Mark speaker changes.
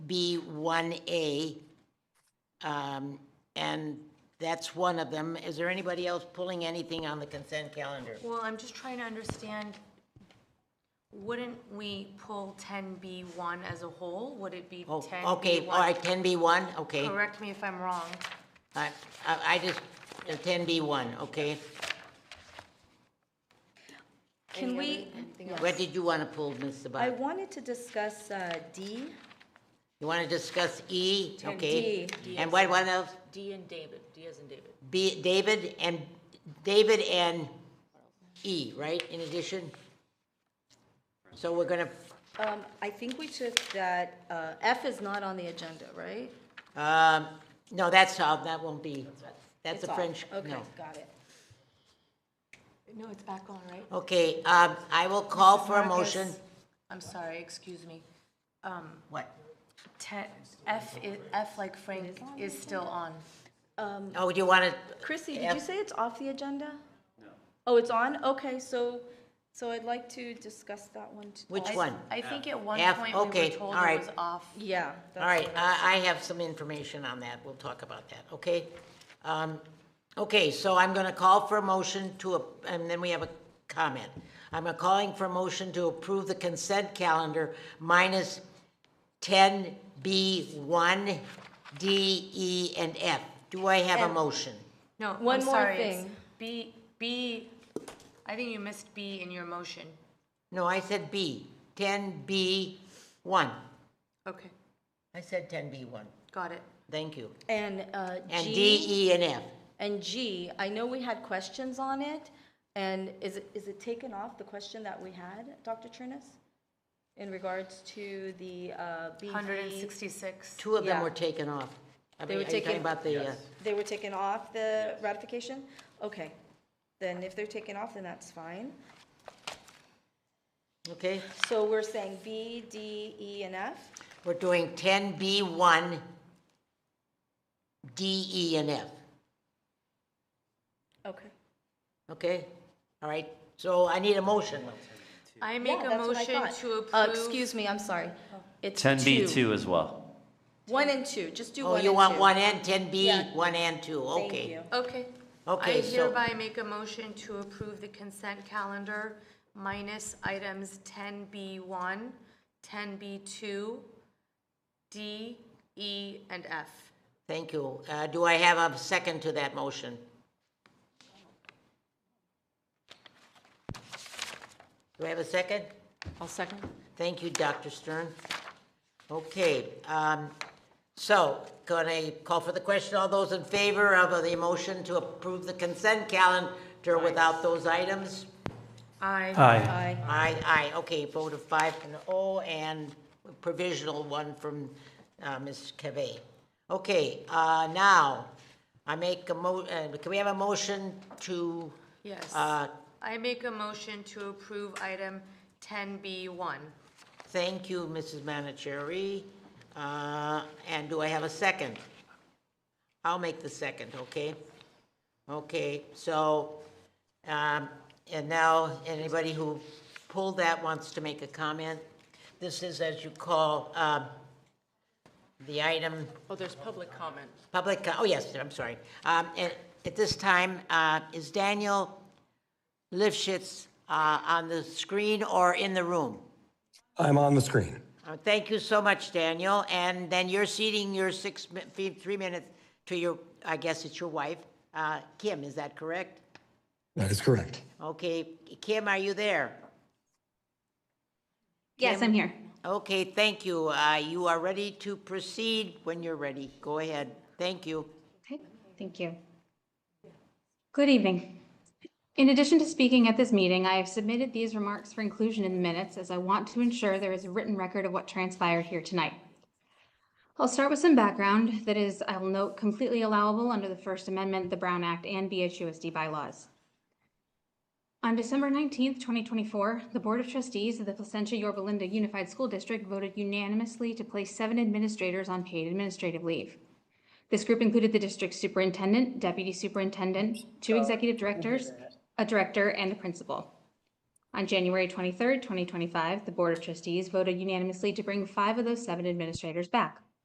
Speaker 1: B1A. um, And that's one of them. Is there anybody else pulling anything on the consent calendar?
Speaker 2: Well, I'm just trying to understand, wouldn't we pull 10B1 as a whole? Would it be
Speaker 1: Oh,
Speaker 2: 10B1?
Speaker 1: Okay, all right, 10B1, okay. All
Speaker 2: Correct me if I'm wrong.
Speaker 1: right, I I just, uh, 10B1, okay.
Speaker 3: Can we,
Speaker 1: Where did you want to pull, Ms.
Speaker 3: I
Speaker 1: Sabat?
Speaker 3: wanted to discuss uh, D.
Speaker 1: You want to discuss E? Okay.
Speaker 3: D.
Speaker 1: And what, what else?
Speaker 2: D and David, D as in David.
Speaker 1: B, David and, David and E, right, in addition? So we're gonna,
Speaker 3: Um, I think we took that, uh, F is not on the agenda, right?
Speaker 1: um, no, that's all, that won't be, that's
Speaker 3: It's
Speaker 1: a
Speaker 3: off.
Speaker 1: French,
Speaker 3: Okay,
Speaker 1: no.
Speaker 3: got it.
Speaker 2: No, it's back on, right?
Speaker 1: Okay, um, I will call for a motion.
Speaker 2: Marcus, I'm sorry, excuse me.
Speaker 1: What?
Speaker 2: 10, F, i- F like Frank is still on.
Speaker 1: Oh, do you want to,
Speaker 3: Chrissy, did
Speaker 1: F.
Speaker 3: you say it's off the agenda? No. Oh, it's on? Okay, so, so I'd like to discuss that one. too.
Speaker 1: which
Speaker 3: Oh, I-
Speaker 1: one?
Speaker 2: I think at one
Speaker 1: F,
Speaker 2: point we were
Speaker 1: okay,
Speaker 2: told
Speaker 1: all
Speaker 2: it
Speaker 1: right.
Speaker 2: was off.
Speaker 3: Yeah.
Speaker 1: All right, I, I have some information on that, we'll talk about that, okay? Um, Okay, so I'm gonna call for a motion to, a- and then we have a comment. I'm a- calling for a motion to approve the consent calendar minus ten B one, D, E, and F. Do I have a motion?
Speaker 2: No,
Speaker 3: One
Speaker 2: I'm
Speaker 3: more
Speaker 2: sorry, it's
Speaker 3: thing.
Speaker 2: B, B, I think you missed B in your motion.
Speaker 1: No, I said B, ten B one.
Speaker 2: Okay,
Speaker 1: I said ten B one,
Speaker 2: got it.
Speaker 1: thank you.
Speaker 3: And uh, G.
Speaker 1: And D, E, and F.
Speaker 3: And G, I know we had questions on it, and is it, is it taken off, the question that we had, Dr. Trinas? In regards to the uh, BV?
Speaker 2: 166.
Speaker 1: Two of them
Speaker 3: Yeah.
Speaker 1: were taken off. I
Speaker 3: They
Speaker 1: mean,
Speaker 3: were
Speaker 1: are you talking
Speaker 3: taken-
Speaker 1: about the, uh,
Speaker 3: They were taken off the ratification? Okay, then if they're taken off, then that's fine.
Speaker 1: okay?
Speaker 3: So we're saying B, D, E, and F?
Speaker 1: We're doing ten B one, D, E, and F,
Speaker 3: Okay.
Speaker 1: okay? All right, so I need a motion.
Speaker 2: I make
Speaker 3: Yeah,
Speaker 2: a
Speaker 3: that's what I
Speaker 2: motion
Speaker 3: thought.
Speaker 2: to
Speaker 3: Uh,
Speaker 2: approve.
Speaker 3: Excuse me, I'm sorry. It's
Speaker 4: 10B2 as well.
Speaker 3: One and two, just do
Speaker 1: Oh,
Speaker 3: one and two.
Speaker 1: you want one and ten B,
Speaker 3: Yeah.
Speaker 1: one and two, okay.
Speaker 3: Thank you.
Speaker 2: Okay.
Speaker 1: Okay,
Speaker 2: I
Speaker 1: so-
Speaker 2: hereby make a motion to approve the consent calendar minus items 10B1, 10B2, D, E, and F.
Speaker 1: Thank you. Uh, do I have a second to that motion? Do I have a second?
Speaker 2: I'll second.
Speaker 1: Thank you, Dr. Stern. Okay, um, so can I call for the question? All those in favor of the motion to approve the consent calendar without those items?
Speaker 2: Aye.
Speaker 4: Aye.
Speaker 3: Aye.
Speaker 1: Aye, aye, okay, vote of five and oh, and provisional one from uh, Ms. Cavay. Okay, uh, now, I make a mo, uh, can we have a motion to?
Speaker 2: Yes.
Speaker 1: Uh,
Speaker 2: I make a motion to approve item 10B1.
Speaker 1: Thank you, Mrs. Manicherry. Uh, And do I have a second? I'll make the second, okay? Okay, so, um, and now, anybody who pulled that wants to make a comment? This is, as you call, um, the item
Speaker 2: Oh, there's public comment.
Speaker 1: Public, co- oh, yes, I'm sorry. Um, At at this time, uh, is Daniel Lifshitz uh, on the screen or in the room?
Speaker 5: I'm on the screen.
Speaker 1: Uh, Thank you so much, Daniel. And then you're ceding your six, mi- fee- three minutes to your, I guess it's your wife, uh, Kim, is that correct?
Speaker 5: That is correct.
Speaker 1: Okay, Kim, are you there?
Speaker 6: Yes, I'm here.
Speaker 1: Okay, thank you. Uh, You are ready to proceed when you're ready. Go ahead. Thank you.
Speaker 6: Okay, thank you. Good evening. In addition to speaking at this meeting, I have submitted these remarks for inclusion in the minutes as I want to ensure there is a written record of what transpired here tonight. I'll start with some background that is, I will note, completely allowable under the First Amendment, the Brown Act, and BHUSD bylaws. On December 19th, 2024, the Board of Trustees of the Placentia Yorba Linda Unified School District voted unanimously to place seven administrators on paid administrative leave. This group included the district superintendent, deputy superintendent, two executive directors, a director, and the principal. On January 23rd, 2025, the Board of Trustees voted unanimously to bring five of those seven administrators back.